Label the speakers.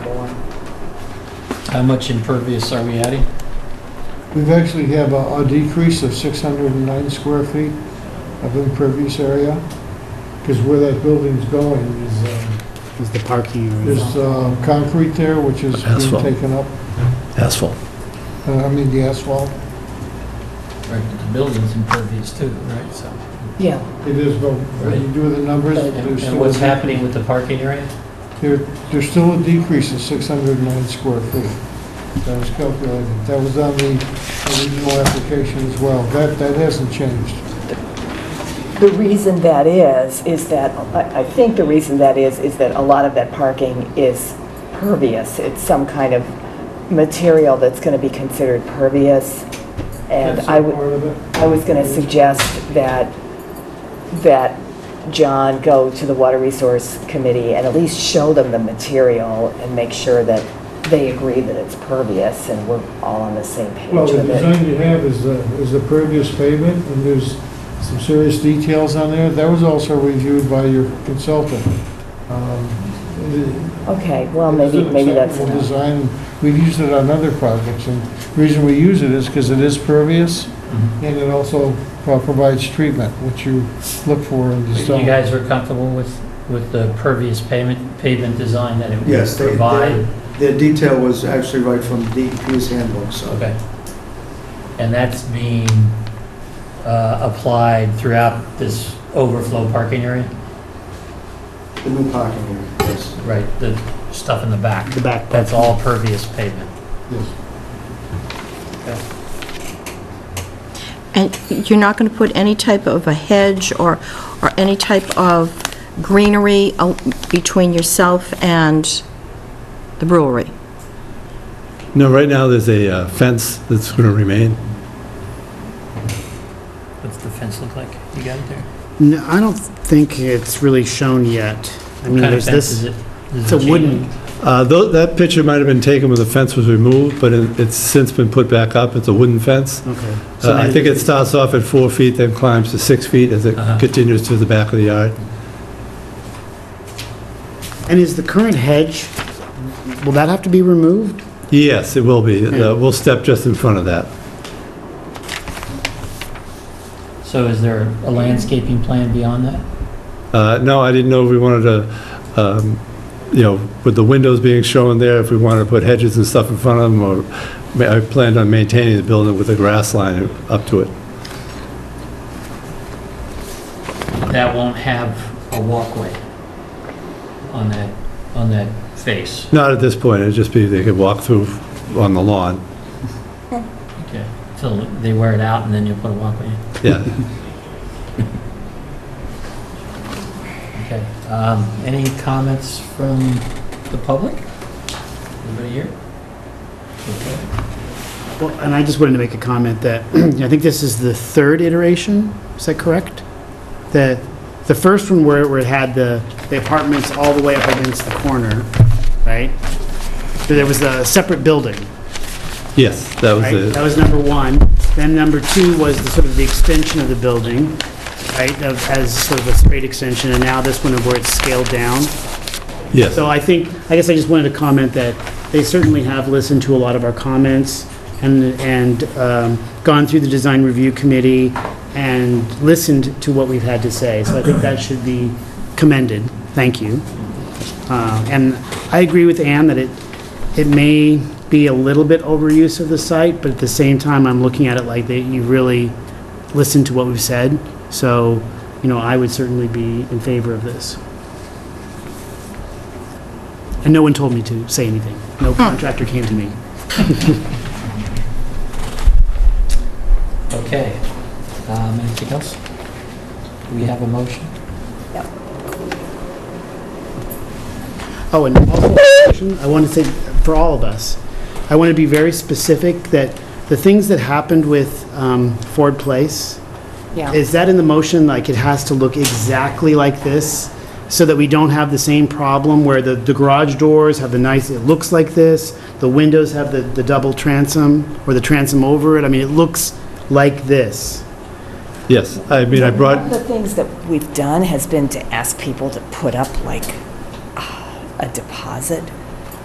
Speaker 1: How much impervious are we adding?
Speaker 2: We've actually have a a decrease of 609 square feet of impervious area, because where that building's going is, uh,
Speaker 3: Is the parking area.
Speaker 2: there's uh, concrete there, which is
Speaker 4: Asphalt.
Speaker 2: being taken up,
Speaker 4: asphalt.
Speaker 2: uh, I mean, the asphalt.
Speaker 1: Right, but the building's impervious too, right, so.
Speaker 5: Yeah,
Speaker 2: It is, but when you do the numbers,
Speaker 1: And
Speaker 2: there's
Speaker 1: and
Speaker 2: still,
Speaker 1: what's
Speaker 2: a-
Speaker 1: happening with the parking area?
Speaker 2: there- there's still a decrease of 609 square feet. That was calculated. That was on the original application as well. That, that hasn't changed.
Speaker 5: the reason that is, is that, I I think the reason that is, is that a lot of that parking is pervious. It's some kind of material that's going to be considered pervious. And
Speaker 2: That's
Speaker 5: I would,
Speaker 2: Part of it.
Speaker 5: I was going to suggest that, that John go to the Water Resource Committee and at least show them the material and make sure that they agree that it's pervious and we're all on the same page
Speaker 2: Well, the
Speaker 5: with it.
Speaker 2: design you have is the, is the pervious pavement, and there's some serious details on there. That was also reviewed by your consultant. Um, it-
Speaker 5: Okay, well,
Speaker 2: it is
Speaker 5: maybe,
Speaker 2: an
Speaker 5: maybe that's
Speaker 2: acceptable
Speaker 5: enough.
Speaker 2: Design, we've used it on other projects, and the reason we use it is because it is pervious, and it also uh, provides treatment, which you look for in
Speaker 1: You
Speaker 2: design.
Speaker 1: guys are comfortable with, with the pervious pavement, pavement design that it
Speaker 6: Yes,
Speaker 1: would
Speaker 6: they- they-
Speaker 1: provide?
Speaker 6: The detail was actually right from DEP's handbook, so.
Speaker 1: Okay. And that's being uh, applied throughout this overflow parking area?
Speaker 6: The new parking area, yes.
Speaker 1: Right, the stuff in the back,
Speaker 3: The back.
Speaker 1: that's all pervious pavement.
Speaker 2: Yes.
Speaker 7: And you're not going to put any type of a hedge or, or any type of greenery uh, between yourself and the brewery?
Speaker 4: No, right now, there's a uh, fence that's going to remain.
Speaker 1: What's the fence look like? You got it there?
Speaker 3: No, I don't think it's really shown yet. I mean,
Speaker 1: What kind of
Speaker 3: there's
Speaker 1: fence is
Speaker 3: this,
Speaker 1: it?
Speaker 3: it's a wooden,
Speaker 4: Uh, tho- That picture might have been taken when the fence was removed, but it- it's since been put back up. It's a wooden fence.
Speaker 3: okay. So
Speaker 4: Uh, I
Speaker 3: maybe-
Speaker 4: think it starts off at four feet, then climbs to six feet as it
Speaker 1: Uh-huh.
Speaker 4: continues to the back of the yard.
Speaker 3: And is the current hedge, will that have to be removed?
Speaker 4: Yes, it will be. Uh, We'll step just in front of that.
Speaker 1: So is there a landscaping plan beyond that?
Speaker 4: Uh, No, I didn't know if we wanted to, um, you know, with the windows being shown there, if we wanted to put hedges and stuff in front of them, or ma- I planned on maintaining the building with a grass line up to it.
Speaker 1: That won't have a walkway on that, on that face.
Speaker 4: Not at this point, it'd just be they could walk through on the lawn.
Speaker 1: Okay. Till they wear it out and then you'll put a walkway in.
Speaker 4: Yeah,
Speaker 1: Okay. Um, Any comments from the public? Anybody here? Okay.
Speaker 3: Well, and I just wanted to make a comment that, I think this is the third iteration, is that correct? The, the first one where, where it had the, the apartments all the way up against the corner, right? There was a separate building,
Speaker 4: yes, that was
Speaker 3: right? That
Speaker 4: it.
Speaker 3: was number one. Then number two was the sort of the extension of the building, right, of- as sort of a straight extension, and now this one of where it's scaled down.
Speaker 4: Yes,
Speaker 3: So I think, I guess I just wanted to comment that they certainly have listened to a lot of our comments and, and um, gone through the design review committee and listened to what we've had to say. So I think that should be commended. Thank you. Uh, And I agree with Ann that it, it may be a little bit overuse of the site, but at the same time, I'm looking at it like that you really listened to what we've said. So, you know, I would certainly be in favor of this. And no one told me to say anything. No contractor came to me.
Speaker 1: Okay. Um, Anything else? Do we have a motion?
Speaker 3: Oh, and also, I want to say, for all of us, I want to be very specific that the things that happened with um, Ford Place,
Speaker 5: Yeah,
Speaker 3: is that in the motion, like it has to look exactly like this? So that we don't have the same problem where the, the garage doors have the nice, it looks like this, the windows have the, the double transom or the transom over it. I mean, it looks like this.
Speaker 4: yes. I mean, I
Speaker 5: One
Speaker 4: brought,
Speaker 5: of the things that we've done has been to ask people to put up like uh, a deposit